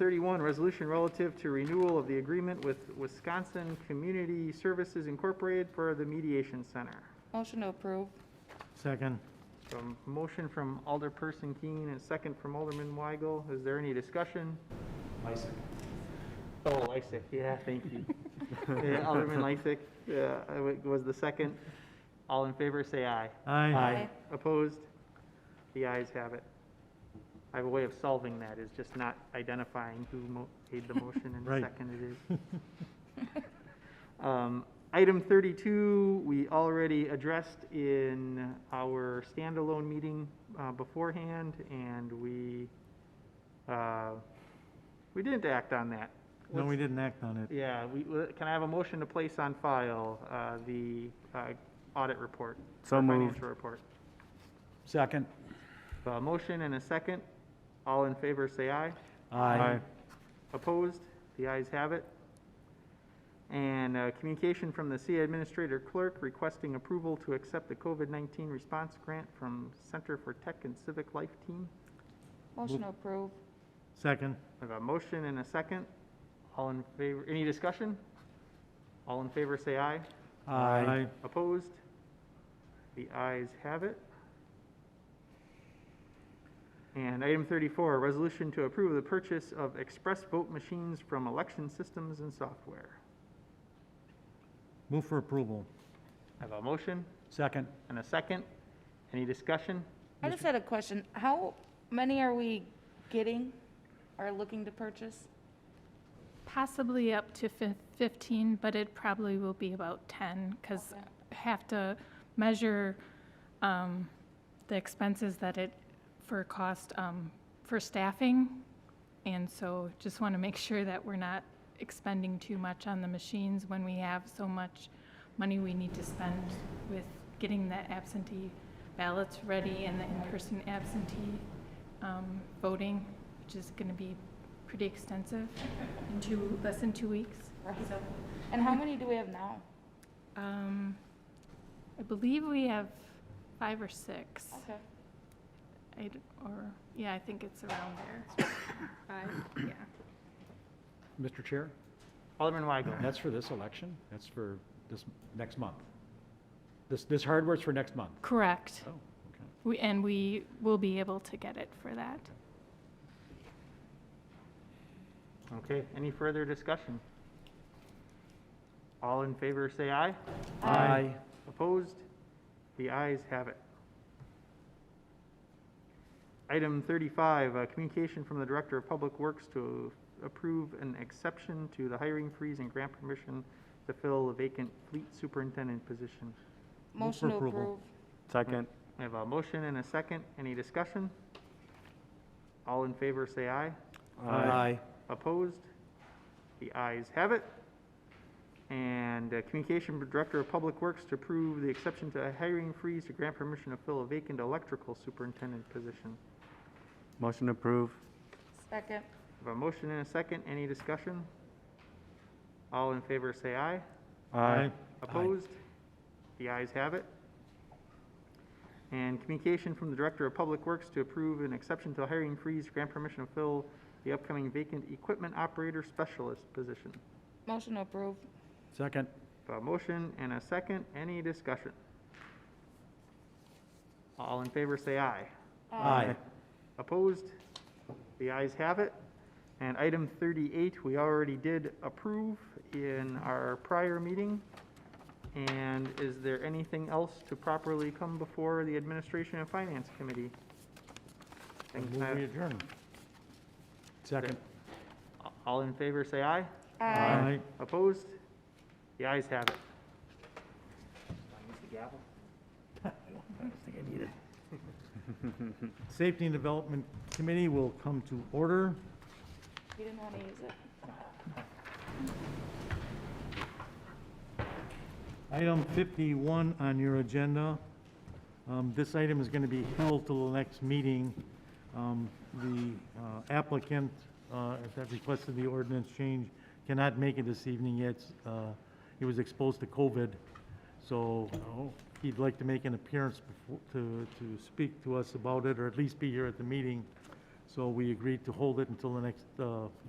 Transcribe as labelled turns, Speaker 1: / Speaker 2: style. Speaker 1: 31, resolution relative to renewal of the agreement with Wisconsin Community Services Incorporated for the Mediation Center.
Speaker 2: Motion to approve.
Speaker 3: Second.
Speaker 1: So motion from Alderperson Keene and second from Alderman Weigel. Is there any discussion?
Speaker 4: Lysick.
Speaker 1: Oh, Lysick, yeah, thank you. Yeah, Alderman Lysick uh, I wa- was the second. All in favor, say aye.
Speaker 3: Aye.
Speaker 1: Opposed? The ayes have it. I have a way of solving that, is just not identifying who mo- made the motion and
Speaker 3: Right.
Speaker 1: seconded it. Um, Item 32, we already addressed in our standalone meeting uh, beforehand, and we, uh, we didn't act on that.
Speaker 3: No,
Speaker 1: Let's-
Speaker 3: we didn't act on it.
Speaker 1: Yeah, we, we- can I have a motion to place on file uh, the uh, audit report?
Speaker 5: So
Speaker 1: or
Speaker 5: moved.
Speaker 1: Financial report.
Speaker 4: Second.
Speaker 1: A motion and a second. All in favor, say aye.
Speaker 4: Aye.
Speaker 1: Opposed? The ayes have it. And uh, communication from the city administrator clerk requesting approval to accept the COVID-19 response grant from Center for Tech and Civic Life Team.
Speaker 2: Motion to approve.
Speaker 3: Second.
Speaker 1: I have a motion and a second. All in favor, any discussion? All in favor, say aye.
Speaker 3: Aye.
Speaker 1: Opposed? The ayes have it. And item 34, resolution to approve the purchase of express vote machines from Election Systems and Software.
Speaker 3: Move for approval.
Speaker 1: I have a motion
Speaker 4: Second.
Speaker 1: and a second. Any discussion?
Speaker 2: I just had a question. How many are we getting or looking to purchase?
Speaker 6: Possibly up to fif- 15, but it probably will be about 10, because
Speaker 2: Okay.
Speaker 6: I have to measure um, the expenses that it, for cost, um, for staffing. And so just want to make sure that we're not expending too much on the machines when we have so much money we need to spend with getting the absentee ballots ready and the in-person absentee um, voting, which is going to be pretty extensive in two, less than two weeks. So,
Speaker 2: And how many do we have now?
Speaker 6: um, I believe we have five or six.
Speaker 2: Okay.
Speaker 6: I d or, yeah, I think it's around there. Five, yeah.
Speaker 4: Mr. Chair,
Speaker 1: Alderman Weigel.
Speaker 4: that's for this election? That's for this, next month? This, this hardware's for next month?
Speaker 6: Correct.
Speaker 4: Oh, okay.
Speaker 6: We, and we will be able to get it for that.
Speaker 1: Okay, any further discussion? All in favor, say aye.
Speaker 4: Aye.
Speaker 1: Opposed? The ayes have it. Item 35, uh, communication from the Director of Public Works to approve an exception to the hiring freeze and grant permission to fill a vacant fleet superintendent position.
Speaker 2: Motion to
Speaker 3: approval.
Speaker 2: approve.
Speaker 5: Second.
Speaker 1: I have a motion and a second. Any discussion? All in favor, say aye.
Speaker 3: Aye.
Speaker 1: Opposed? The ayes have it. And uh, Communication Director of Public Works to approve the exception to a hiring freeze to grant permission to fill a vacant electrical superintendent position.
Speaker 5: Motion approved.
Speaker 2: Second.
Speaker 1: Have a motion and a second, any discussion? All in favor, say aye.
Speaker 3: Aye.
Speaker 1: Opposed? The ayes have it. And communication from the Director of Public Works to approve an exception to a hiring freeze, grant permission to fill the upcoming vacant equipment operator specialist position.
Speaker 2: Motion to approve.
Speaker 4: Second.
Speaker 1: A motion and a second, any discussion? All in favor, say aye. Opposed? The ayes have it. And item 38, we already did approve in our prior meeting. And is there anything else to properly come before the Administration and Finance Committee?
Speaker 3: I
Speaker 1: Things
Speaker 3: Move
Speaker 1: have-
Speaker 3: we adjourn.
Speaker 4: Second.
Speaker 1: All in favor, say aye.
Speaker 2: Aye.
Speaker 1: Opposed? The ayes have it.
Speaker 3: Safety and Development Committee will come to order.
Speaker 2: You didn't want to use it.
Speaker 3: Item 51 on your agenda. Um, This item is going to be held till the next meeting. Um, The uh, applicant uh, that requested the ordinance change cannot make it this evening yet. Uh, He was exposed to COVID, so he'd like to make an appearance befo- to, to speak to us about it, or at least be here at the meeting. So we agreed to hold it until the next uh,